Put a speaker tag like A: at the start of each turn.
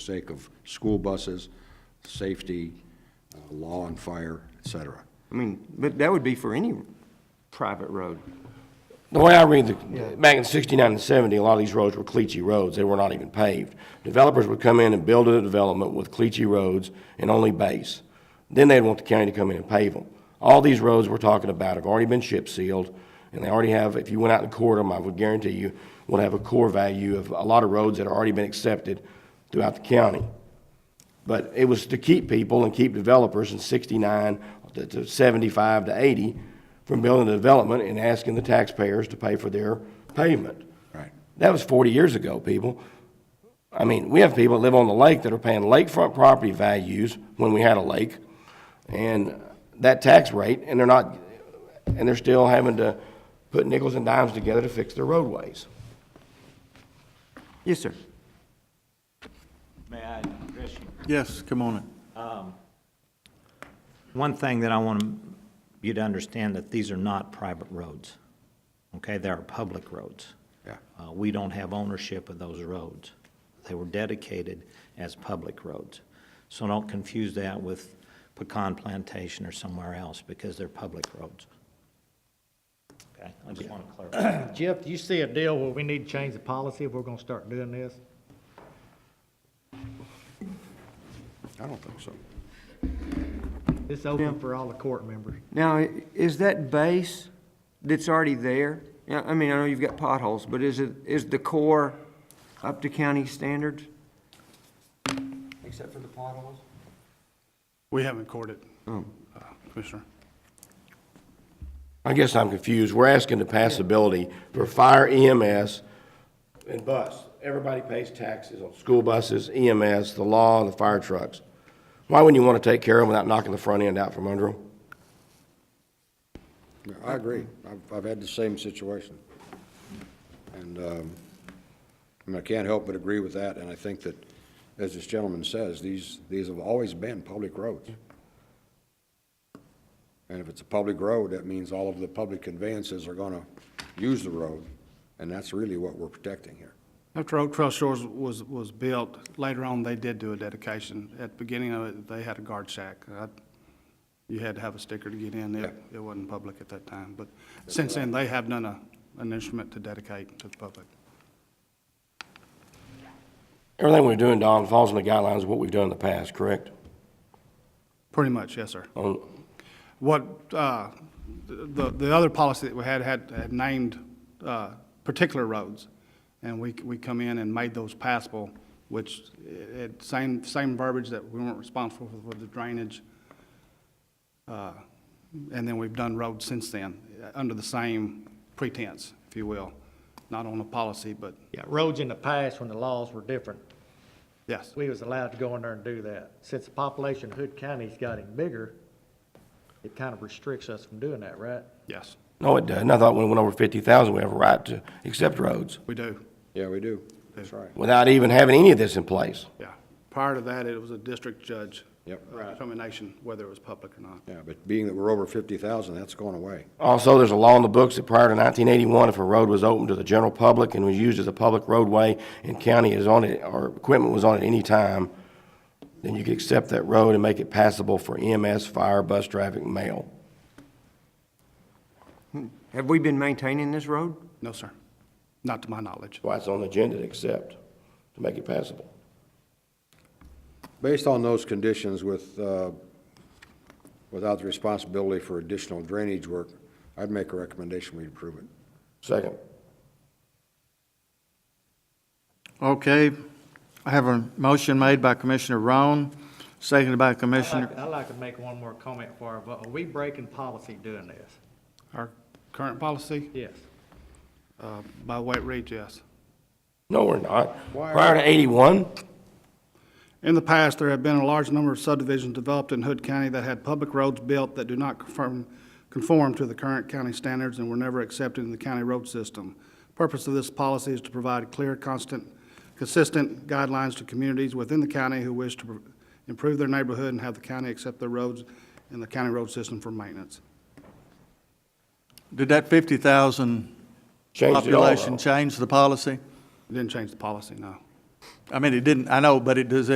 A: sake of school buses, safety, uh, law and fire, et cetera.
B: I mean, but that would be for any private road.
C: The way I read the, back in sixty-nine and seventy, a lot of these roads were cliche roads, they were not even paved. Developers would come in and build a development with cliche roads and only base. Then they'd want the county to come in and pave them. All these roads we're talking about have already been chip sealed, and they already have, if you went out and cored them, I would guarantee you, would have a core value of a lot of roads that have already been accepted throughout the county. But it was to keep people and keep developers in sixty-nine to- to seventy-five to eighty from building the development and asking the taxpayers to pay for their pavement.
A: Right.
C: That was forty years ago, people. I mean, we have people that live on the lake that are paying lakefront property values when we had a lake and that tax rate, and they're not, and they're still having to put nickels and dimes together to fix their roadways.
B: Yes, sir.
D: May I address you?
E: Yes, come on in.
D: One thing that I want you to understand, that these are not private roads, okay? They are public roads.
A: Yeah.
D: Uh, We don't have ownership of those roads. They were dedicated as public roads. So don't confuse that with Pecan Plantation or somewhere else, because they're public roads. Okay, I just want to clarify.
F: Jeff, do you see a deal where we need to change the policy if we're gonna start doing this?
A: I don't think so.
F: It's open for all the court members.
B: Now, i- is that base that's already there? Yeah, I mean, I know you've got potholes, but is it, is the core up to county standards? Except for the potholes?
E: We haven't courted, Uh,
B: Oh.
E: Commissioner.
C: I guess I'm confused. We're asking the passability for fire EMS and bus. Everybody pays taxes on school buses, EMS, the law, and the fire trucks. Why wouldn't you want to take care of them without knocking the front end out from under them?
A: Yeah, I agree. I've, I've had the same situation. And, um, I mean, I can't help but agree with that, and I think that, as this gentleman says, these, these have always been public roads. And if it's a public road, that means all of the public conveyances are gonna use the road, and that's really what we're protecting here.
E: After Oak Trail Shores was, was built, later on, they did do a dedication. At the beginning of it, they had a guard shack. I- You had to have a sticker to get in. It, it wasn't public at that time. But since then, they have done a, an instrument to dedicate to the public.
C: Everything we're doing, Don, falls in the guidelines of what we've done in the past, correct? Oh,
E: Pretty much, yes, sir.
C: On,
E: What, uh, the, the other policy that we had, had, had named, uh, particular roads, and we, we come in and made those passable, which, uh, it, same, same verbiage that we weren't responsible for, for the drainage. Uh, And then we've done roads since then, uh, under the same pretense, if you will, not on a policy, but,
F: Yeah. Roads in the past when the laws were different,
E: yes.
F: we was allowed to go in there and do that. Since the population of Hood County's getting bigger, it kind of restricts us from doing that, right?
E: Yes,
C: no, it doesn't. I thought when we went over fifty thousand, we have a right to accept roads
E: we do,
A: Yeah, we do. That's right.
C: without even having any of this in place.
E: yeah. Prior to that, it was a district judge.
A: Yep.
E: uh, Determination, whether it was public or not.
A: Yeah, but being that we're over fifty thousand, that's going away.
C: Also, there's a law in the books that prior to 1981, if a road was open to the general public and was used as a public roadway and county is on it, or equipment was on it any time, then you could accept that road and make it passable for EMS, fire, bus traffic, and mail.
B: Have we been maintaining this road?
E: No, sir. Not to my knowledge.
C: Why it's on the agenda to accept, to make it passable.
A: Based on those conditions with, uh, without the responsibility for additional drainage work, I'd make a recommendation we approve it.
C: Second.
G: Okay, I have a motion made by Commissioner Roan, seconded by
F: I'd
G: Commissioner,
F: like, I'd like to make one more comment for, her, but are we breaking policy doing this?
E: Our current policy,
F: Yes.
E: uh, by weight reads yes.
C: No, we're not. Prior to 81,
E: In the past, there have been a large number of subdivisions developed in Hood County that had public roads built that do not conform, conform to the current county standards and were never accepted in the county road system. Purpose of this policy is to provide clear, constant, consistent guidelines to communities within the county who wish to pr- improve their neighborhood and have the county accept their roads in the county road system for maintenance.
G: did that 50,000
C: changed it all.
G: population
C: though.
G: change the policy?
E: It Didn't change the policy, no.
G: I mean, it didn't, I know, but it, does